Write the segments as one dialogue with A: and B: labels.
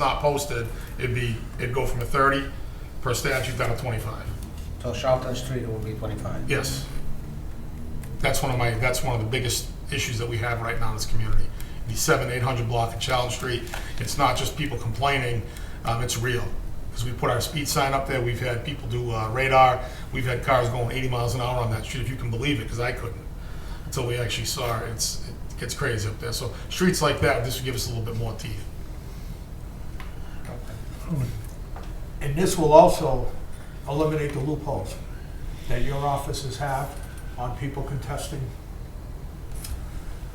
A: not posted, it'd be, it'd go from a 30 per statute down to 25.
B: So Charlton Street will be 25.
A: Yes. That's one of my, that's one of the biggest issues that we have right now in this community. The seven, eight hundred block of Child Street, it's not just people complaining, um, it's real. Because we put our speed sign up there, we've had people do uh, radar, we've had cars going eighty miles an hour on that street, if you can believe it, because I couldn't. Until we actually saw it, it's, it gets crazy up there. So streets like that, this would give us a little bit more teeth.
C: And this will also eliminate the loopholes that your offices have on people contesting.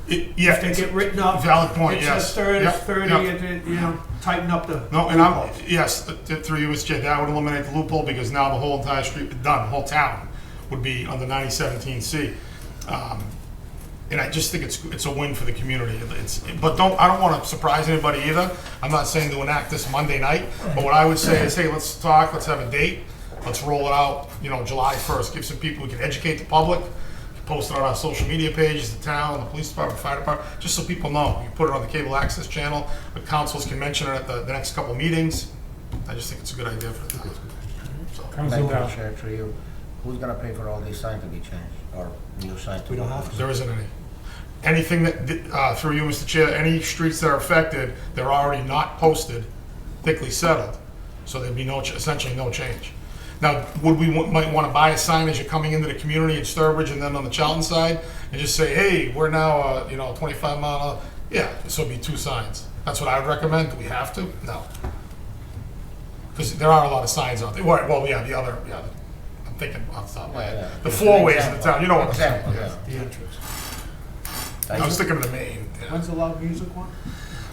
A: It- Yeah,
C: If they
A: it's-
C: get written up.
A: Valid point,
C: It
A: yes.
C: says thirty,
A: Yep,
C: thirty,
A: yep.
C: and it- you know, tighten up the.
A: No, and I'm,
C: loopholes.
A: yes, th- th- through you, Mr. Chair, that would eliminate the loophole because now the whole entire street, done, the whole town would be under 9017C. Um, And I just think it's, it's a win for the community. It's, but don't, I don't want to surprise anybody either. I'm not saying to enact this Monday night, but what I would say is, hey, let's talk, let's have a date, let's roll it out, you know, July 1st, give some people, we can educate the public, post it on our social media pages, the town, the police department, fire department, just so people know. You put it on the cable access channel, the councils can mention it at the, the next couple meetings. I just think it's a good idea for the town. So,
B: Thank you, Chair Trio. Who's gonna pay for all these signs to be changed, or new signs to be?
C: We don't have to.
A: There isn't any. Anything that, uh, through you, Mr. Chair, any streets that are affected, they're already not posted, thickly settled, so there'd be no, ch- essentially no change. Now, would we, wa- might want to buy a sign as you're coming into the community in Sturbridge and then on the Charlton side, and just say, hey, we're now, uh, you know, 25 mile, an hour." yeah, so it'd be two signs. That's what I would recommend, do we have to? No. Because there are a lot of signs out there, Right, well, yeah, the other, yeah, I'm thinking off the top of my
B: Yeah, yeah.
A: head, the four ways in the
B: Example.
A: town, you know what I'm saying.
B: Example,
A: yes.
B: yeah.
C: The entrance.
A: I was thinking of the main. yeah.
C: When's the loud music one?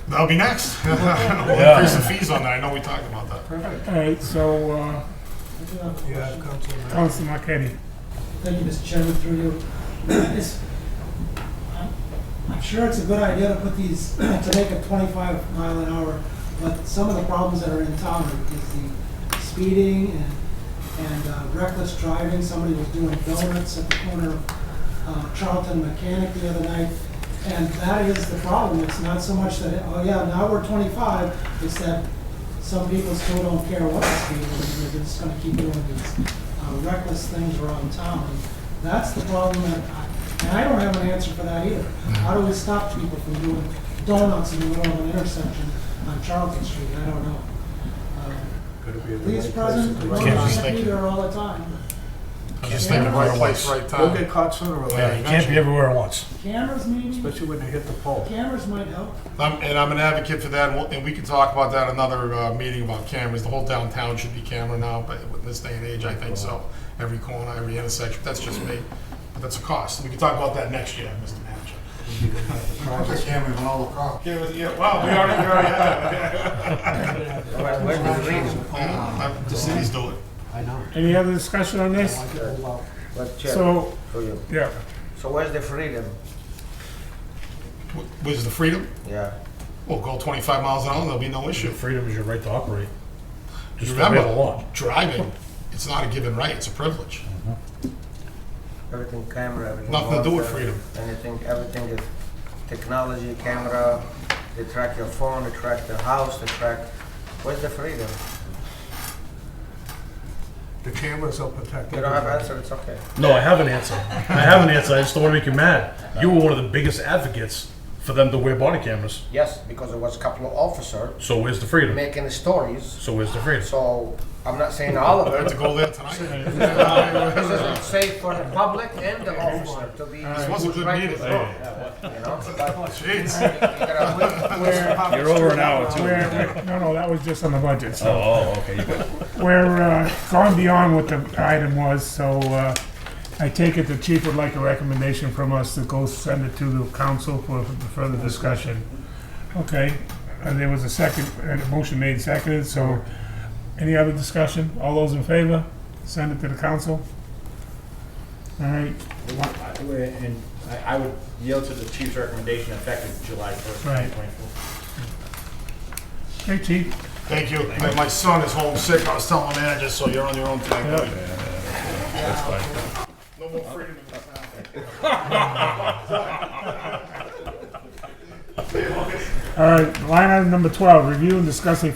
A: That'll be next. We'll Increase the fees on that. I know we talked about that.
C: Perfect.
D: All right, so, uh,
C: You have Councilor Murphy.
D: Council Marquetti.
E: Thank you, Mr. Chairman, through you. This- I'm- I'm sure it's a good idea to put these, to make it 25 mile an hour, but some of the problems that are in town is the speeding and, and uh, reckless driving. Somebody was doing donuts at the corner of uh, Charlton Mechanic the other night, and that is the problem. It's not so much that, oh yeah, now we're 25, it's that some people still don't care what the speed is, they're just gonna keep doing these uh, reckless things around town. That's the problem, that I- and I don't have an answer for that either. How do we stop people from doing donuts in the middle of an intersection on Charlton Street? I don't know. Uh,
C: Could be at the
E: Police
C: right place at
E: presence,
C: the
E: we're
C: right
A: Can't
E: not
A: just
C: time.
A: think-
E: be there all the time.
A: I'm just thinking right place, right
C: They'll get
A: time.
C: caught sooner or
A: Yeah,
C: later,
A: you can't be everywhere.
E: Cameras maybe,
C: especially when they hit the pole.
E: cameras might help.
A: I'm, and I'm an advocate for that, and, we'll, and we can talk about that another uh, meeting about cameras. The whole downtown should be camera now, but in this day and age, I think so. Every corner, every intersection. That's just me. But that's a cost. We can talk about that next year, Mr. Manager. Yeah, well, yeah, wow, we already, we already have it.
B: Where, where do we read it?
A: Uh, The cities do it.
C: I know.
D: Any other discussion on this?
C: I get loud.
B: But Chair,
D: So,
B: through you.
D: yeah,
B: So where's the freedom?
A: W- Where's the freedom?
B: Yeah.
A: We'll go 25 miles an hour, there'll be no issue.
F: Freedom is your right to operate. Just
A: Remember,
F: the way the law.
A: driving, it's not a given right, it's a privilege.
B: Everything camera, everything.
A: Nothing to do with
B: monitor,
A: freedom.
B: Anything, everything is technology, camera, they track your phone, they track your house, they track, where's the freedom?
C: The cameras will protect.
B: You don't have
C: everybody.
B: answer, it's okay.
F: No, I have an answer. I have an answer. I just don't want to make you mad. You were one of the biggest advocates for them to wear body cameras.
B: Yes, because there was a couple of officer
F: So where's the freedom?
B: making stories,
F: So where's the freedom?
B: so I'm not saying all of
A: I
B: it.
A: had to go there tonight.
B: This is safe for the public and the officer to be.
A: This was a good
B: right
A: meeting.
B: with wrong, You know, but
A: Jeez.
B: you gotta-
F: You're over an hour
D: we're, we're- no, no, that was just on the budget, so
F: Oh, okay.
D: we're uh, gone beyond what the item was, so uh, I take it the chief would like a recommendation from us to go send it to the council for further discussion. Okay, and there was a second, and a motion made seconded, so any other discussion? All those in favor, send it to the council? All right,
G: I- And I I would yield to the chief's recommendation effective July 1st,
D: Right.
G: 2024.
D: hey, chief.
A: Thank you. My- My son is homesick. I was telling the manager, so you're on your own tonight. buddy. No more freedom in this town.
D: All right, line item number 12, review and discuss a